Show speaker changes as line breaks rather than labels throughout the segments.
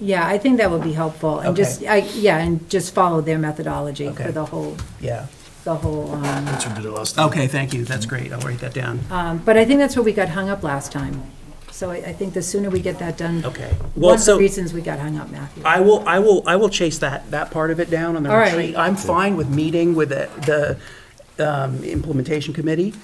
Yeah, I think that would be helpful, and just,
Okay.
I, yeah, and just follow their methodology for
Okay.
the whole,
Yeah.
the whole, um,
That's what we did last time.
Okay, thank you. That's great. I'll write that down.
um, but I think that's where we got hung up last time. So I, I think the sooner we get that done.
Okay.
One
Well,
of the
so
reasons we got hung up, Matthew.
I will, I will, I will chase that, that part of it down on the
All right.
retreat. I'm fine with meeting with the, the um, implementation committee.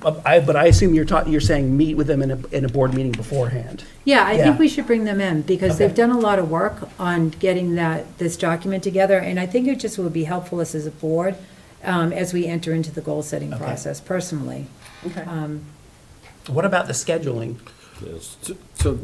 But I, but I assume you're talking, you're saying meet with them in a, in a board meeting beforehand.
Yeah, I
Yeah.
think we should bring them in, because they've
Okay.
done a lot of work on getting that, this document together, and I think it just would be helpful us as a board, um, as we enter into the goal-setting
Okay.
process personally.
Okay.
Um,
What about the scheduling?
So- So,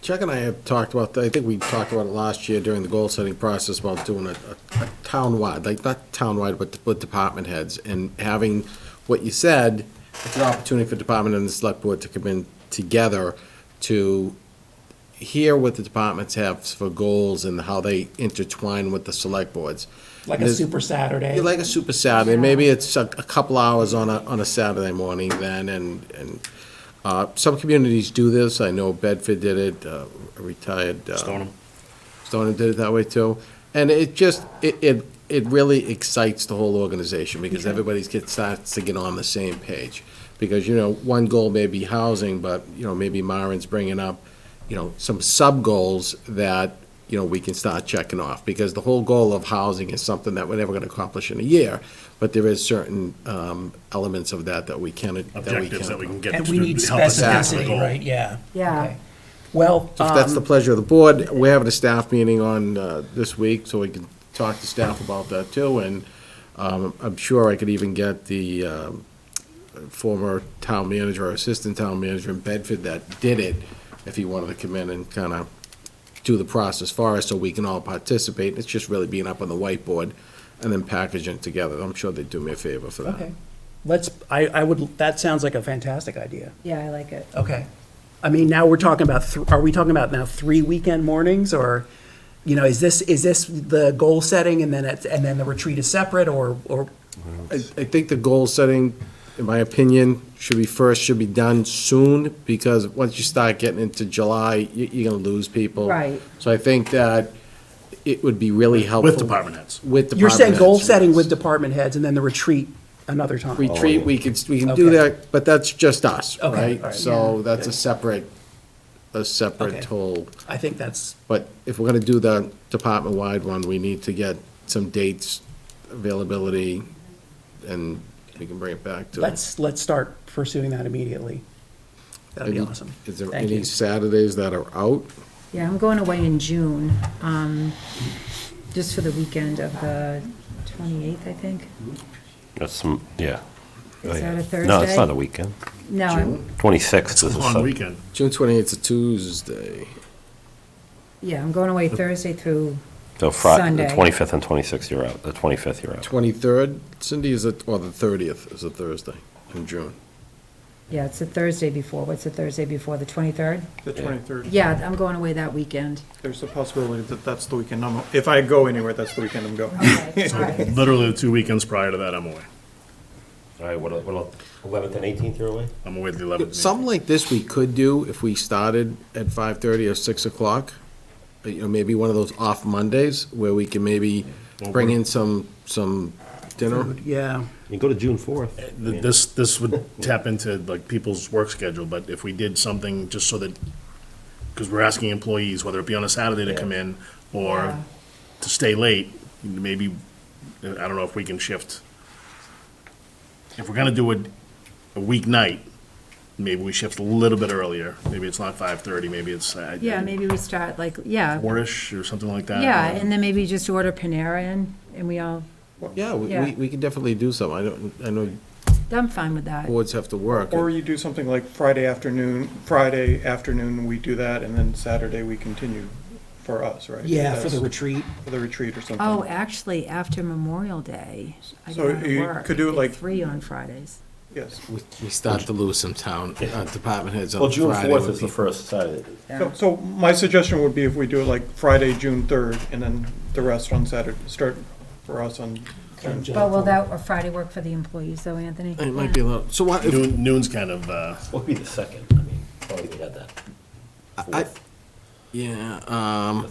Chuck and I have talked about, I think we talked about it last year during the goal-setting process about doing a, a a town-wide, like, not town-wide, but, but department heads, and having what you said, it's an opportunity for department and the select board to come in together to hear what the departments have for goals and how they intertwine with the select boards.
Like a
There's-
super Saturday?
you like a super Saturday, maybe it's a, a couple hours on a, on a Saturday morning then, and, and, uh, some communities do this, I know Bedford did it, uh, a retired. uh,
Stoneham.
Stoneham did it that way too, and it just, it, it, it really excites the whole organization, because everybody's get, starts to get on the same page. Because, you know, one goal may be housing, but, you know, maybe Myron's bringing up, you know, some sub-goals that, you know, we can start checking off, because the whole goal of housing is something that we're never gonna accomplish in a year, but there is certain, um, elements of that that we can, that we can.
Objectives that we can get to
And we need
help us get to the
specificity,
goal.
right? Yeah.
Yeah.
Okay. Well, um,
So If that's the pleasure of the board, we're having a staff meeting on uh, this week, so we can talk to staff about that too, and um, I'm sure I could even get the um, former town manager or assistant town manager in Bedford that did it, if he wanted to come in and kind of do the process for us, so we can all participate. It's just really being up on the whiteboard and then packaging it together. I'm sure they'd do me a favor for that.
okay. Let's, I, I would, that sounds like a fantastic idea.
Yeah, I like it.
Okay. I mean, now we're talking about, thr- are we talking about now three weekend mornings or, you know, is this, is this the goal setting and then it's, and then the retreat is separate or, or,
I, I think the goal setting, in my opinion, should be first, should be done soon, because once you start getting into July, you, you're gonna lose people.
Right.
So I think that it would be really helpful.
department heads.
With department.
you're saying goal
heads.
setting with department heads and then the retreat another time?
Retreat, we could, we can do
Okay.
that, but that's just us,
Okay,
right?
alright.
So that's a separate, a
Okay.
separate whole,
I think that's,
but if we're gonna do the department-wide one, we need to get some dates, availability, and we can bring it back to.
let's, let's start pursuing that immediately. That'd be
Any-
awesome.
Is there
Thank
any
you.
Saturdays that are out?
Yeah, I'm going away in June, um, just for the weekend of the 28th, I think.
That's some, yeah. Oh,
Is
yeah.
that a Thursday?
No, it's not a weekend.
No, I'm-
It's
26th
a
is a
long
Sunday.
weekend.
June twenty-eighth is a Tuesday.
yeah, I'm going away Thursday through,
So Friday,
Sunday.
the 25th and 26th, you're out. The 25th, you're out.
Twenty-third, Cindy is a, or the thirtieth is a Thursday in June.
yeah, it's the Thursday before, what's the Thursday before, the 23rd?
The twenty-third.
Yeah, I'm going away that weekend.
There's a possibility that that's the weekend I'm, if I go anywhere, that's the weekend I'm going.
Okay, all right.
Literally the two weekends prior to that, I'm away.
All right, what, what, 11th and 18th, you're away?
I'm away the 11th.
Something like this we could do if we started at five-thirty or six o'clock. Uh, You know, maybe one of those off Mondays where we can maybe
Well,
bring
we're-
in some, some dinner.
Yeah.
You go to June 4th.
Th- This, this would tap into like people's work schedule, but if we did something just so that, because we're asking employees, whether it be on a Saturday to come in or
Yeah.
to stay late, maybe, I don't know if we can shift. If we're gonna do it a weeknight, maybe we shift a little bit earlier. Maybe it's not five thirty, maybe it's. uh,
Yeah, maybe we start like, yeah,
Four-ish or something like that.
yeah, and then maybe just order Panera in, and we all,
Yeah, we,
Yeah.
we- we can definitely do some. I don't, I know
I'm fine with that.
boards have to work.
Or you do something like Friday afternoon, Friday afternoon, we do that, and then Saturday we continue for us, right?
Yeah, for the
That's-
retreat.
For the retreat or something.
Oh, actually, after Memorial Day, I
So
go to
you
work
could do it
at
like-
Three on Fridays.
Yes.
We we start to lose some town, uh, department heads on
Well,
Friday.
June 4th
with
is the
people.
first Saturday.
So, so my suggestion would be if we do it like Friday, June third, and then the rest on Saturday, start for us on.
But will that, or Friday work for the employees though, Anthony?
It might be a little, so what, if-
Noon, noon's kind of, uh,
What would be the second? I mean, probably we had that.
I, Yeah, um.